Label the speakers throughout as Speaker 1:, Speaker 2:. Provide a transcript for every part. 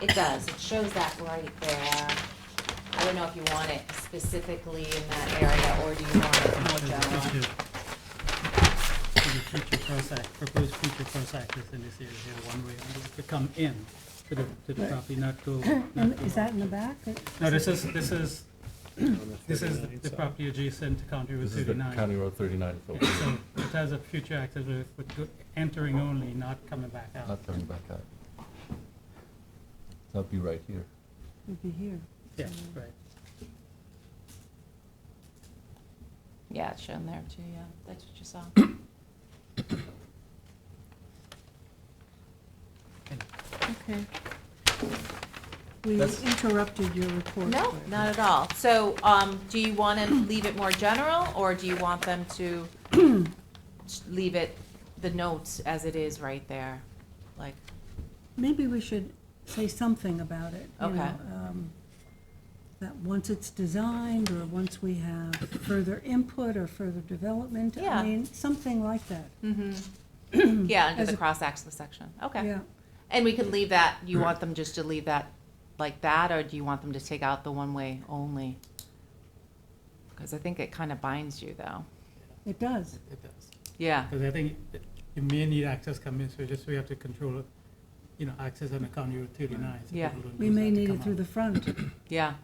Speaker 1: It does, it shows that right there. I don't know if you want it specifically in that area, or do you want it more general?
Speaker 2: For the future cross-act, proposed future cross-access in this area here, one way, and it to come in to the, to the
Speaker 3: Right.
Speaker 2: property, not go.
Speaker 3: And
Speaker 2: not go
Speaker 3: is that in the
Speaker 2: out.
Speaker 3: back?
Speaker 2: No, this is, this is, this is
Speaker 4: thirty-nine
Speaker 2: the
Speaker 4: side.
Speaker 2: property adjacent to County Route
Speaker 5: This is the
Speaker 2: thirty-nine.
Speaker 5: County Road thirty-nine, so
Speaker 2: Yeah, So it has a future access with, with go- entering only, not coming back out.
Speaker 5: not coming back out. That'll be right here.
Speaker 3: Would be here.
Speaker 2: Yeah, right.
Speaker 1: Yeah, it's shown there too, yeah, that's what you saw.
Speaker 3: Okay. We
Speaker 5: That's-
Speaker 3: interrupted your report.
Speaker 1: No, not at all. So, um, do you want to leave it more general, or do you want them to s- leave it, the notes as it is right there? Like,
Speaker 3: Maybe we should say something about it. you
Speaker 1: Okay.
Speaker 3: know, um, That once it's designed, or once we have further input or further development.
Speaker 1: Yeah.
Speaker 3: I mean, something like that.
Speaker 1: mm-hmm, yeah, under
Speaker 3: As
Speaker 1: the
Speaker 3: a-
Speaker 1: cross-access section, okay.
Speaker 3: Yeah.
Speaker 1: And we can leave that, you want them just to leave that like that, or do you want them to take out the one-way only? Because I think it kind of binds you, though.
Speaker 3: It does.
Speaker 2: It does.
Speaker 1: Yeah,
Speaker 2: Because I think it- you may need access coming, so just we have to control, you know, access on the County Route thirty-nine. so
Speaker 1: Yeah.
Speaker 2: people don't
Speaker 3: We
Speaker 2: use
Speaker 3: may
Speaker 2: that to
Speaker 3: need
Speaker 2: come
Speaker 3: it through
Speaker 2: out.
Speaker 3: the front.
Speaker 1: yeah,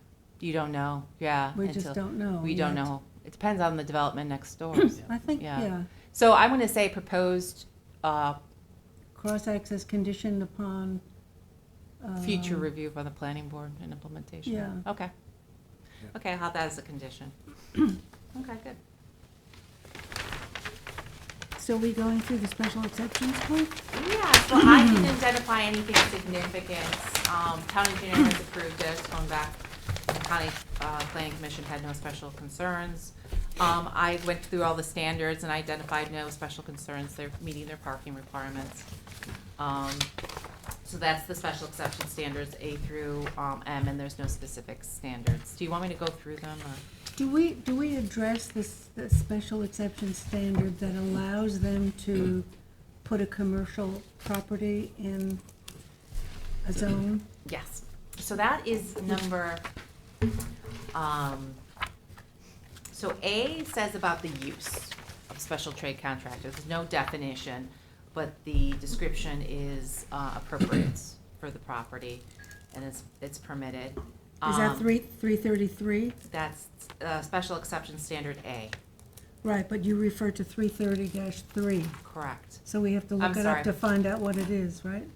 Speaker 1: you don't know, yeah.
Speaker 3: We just
Speaker 1: until-
Speaker 3: don't know.
Speaker 1: We don't
Speaker 3: yet.
Speaker 1: know. It depends on the development next door.
Speaker 3: I think,
Speaker 1: Yeah.
Speaker 3: yeah,
Speaker 1: So I'm going to say proposed uh,
Speaker 3: cross-access conditioned upon.
Speaker 1: future
Speaker 3: um,
Speaker 1: review by the planning board and implementation.
Speaker 3: yeah.
Speaker 1: Okay. Okay, I'll have that as a condition. Okay, good.
Speaker 3: So we going through the special exceptions part?
Speaker 1: Yeah, so I didn't identify anything significant. Um, town engineer has approved it, it's going back. The County, uh, planning commission had no special concerns. Um, I went through all the standards and identified no special concerns. They're meeting their parking requirements. Um, so that's the special exception standards, A through, um, M, and there's no specific standards. Do you want me to go through them or?
Speaker 3: Do we, do we address this, the special exception standard that allows them to put a commercial property in a zone?
Speaker 1: Yes. So that is number, um, so A says about the use of special trade contractors, there's no definition, but the description is uh, appropriate for the property, and it's, it's permitted.
Speaker 3: Is that
Speaker 1: Um,
Speaker 3: three, three thirty-three?
Speaker 1: That's, uh, special exception standard A,
Speaker 3: Right, but you refer to three thirty three,
Speaker 1: correct.
Speaker 3: so we have to
Speaker 1: I'm
Speaker 3: look it
Speaker 1: sorry.
Speaker 3: up to find out what it is, right?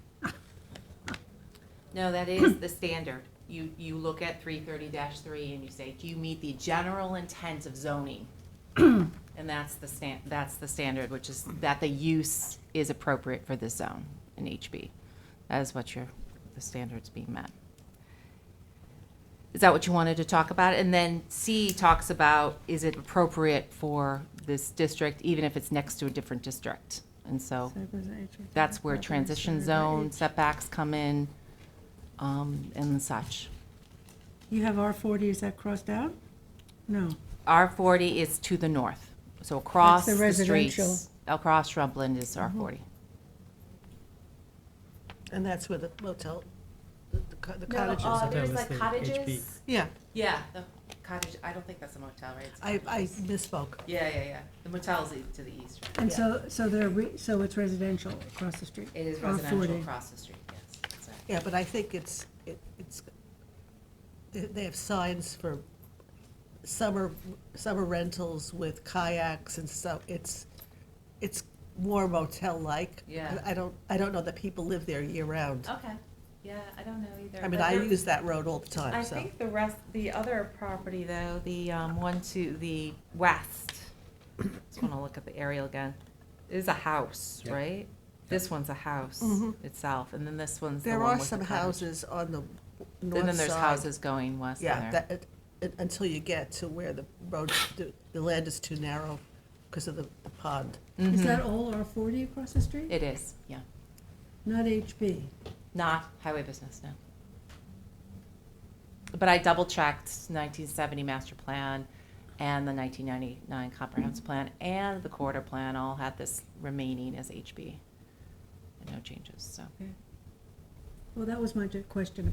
Speaker 1: No, that is the standard. You, you look at three thirty three and you say, do you meet the general intent of zoning? And that's the stan, that's the standard, which is that the use is appropriate for this zone in HB. That is what your, the standard's being met. Is that what you wanted to talk about? And then C talks about, is it appropriate for this district, even if it's next to a different district? And so Oh. that's where transition zone setbacks come in, um, and such.
Speaker 3: You have R forty, is that crossed out? No,
Speaker 1: R forty is to the north, so across
Speaker 3: the
Speaker 1: the
Speaker 3: residential. Mm-hmm.
Speaker 1: streets, across Shrubland is R forty.
Speaker 6: And that's where the motel, the- the co- the
Speaker 1: No,
Speaker 6: cottages.
Speaker 1: uh,
Speaker 6: are.
Speaker 1: there's
Speaker 2: Hotel
Speaker 1: like
Speaker 2: estate,
Speaker 1: cottages.
Speaker 6: Yeah,
Speaker 1: Yeah, the cottage, I don't think that's a motel, right? It's-
Speaker 6: I, I misspoke.
Speaker 1: Yeah, yeah, yeah. The motel's e- to the east, right?
Speaker 3: and so, so they're, re- so it's residential across the street?
Speaker 1: It is
Speaker 3: R
Speaker 1: residential
Speaker 3: 40.
Speaker 1: across the street, yes. exactly.
Speaker 6: Yeah, but I think it's, it- it's, they- they have signs for summer, summer rentals with kayaks and so it's, it's more motel-like.
Speaker 1: Yeah.
Speaker 6: I don't, I don't know that people live there year-round.
Speaker 1: Okay, yeah, I don't know either.
Speaker 6: I mean,
Speaker 1: but
Speaker 6: I
Speaker 1: there-
Speaker 6: use that road all the
Speaker 1: I
Speaker 6: time, so.
Speaker 1: think the rest, the other property though, the um, one to the west, just want to look at the aerial again, is a house,
Speaker 2: Yeah.
Speaker 1: right? This one's a house
Speaker 6: Mhm.
Speaker 1: itself, and then this one's the
Speaker 6: There
Speaker 1: one
Speaker 6: are
Speaker 1: with the
Speaker 6: some
Speaker 1: cottage.
Speaker 6: houses on the north side.
Speaker 1: And then there's houses going west
Speaker 6: Yeah,
Speaker 1: there.
Speaker 6: that, it- it- until you get to where the road, the- the land is too narrow because of the the pond.
Speaker 3: Is
Speaker 1: Mhm.
Speaker 3: that all R forty across the street?
Speaker 1: It is, yeah.
Speaker 3: Not HB?
Speaker 1: Not highway business, no. But I double checked nineteen seventy master plan and the nineteen ninety-nine comprehensive plan and the quarter plan all had this remaining as HB. And no changes, so.
Speaker 3: Well, that was my ju- question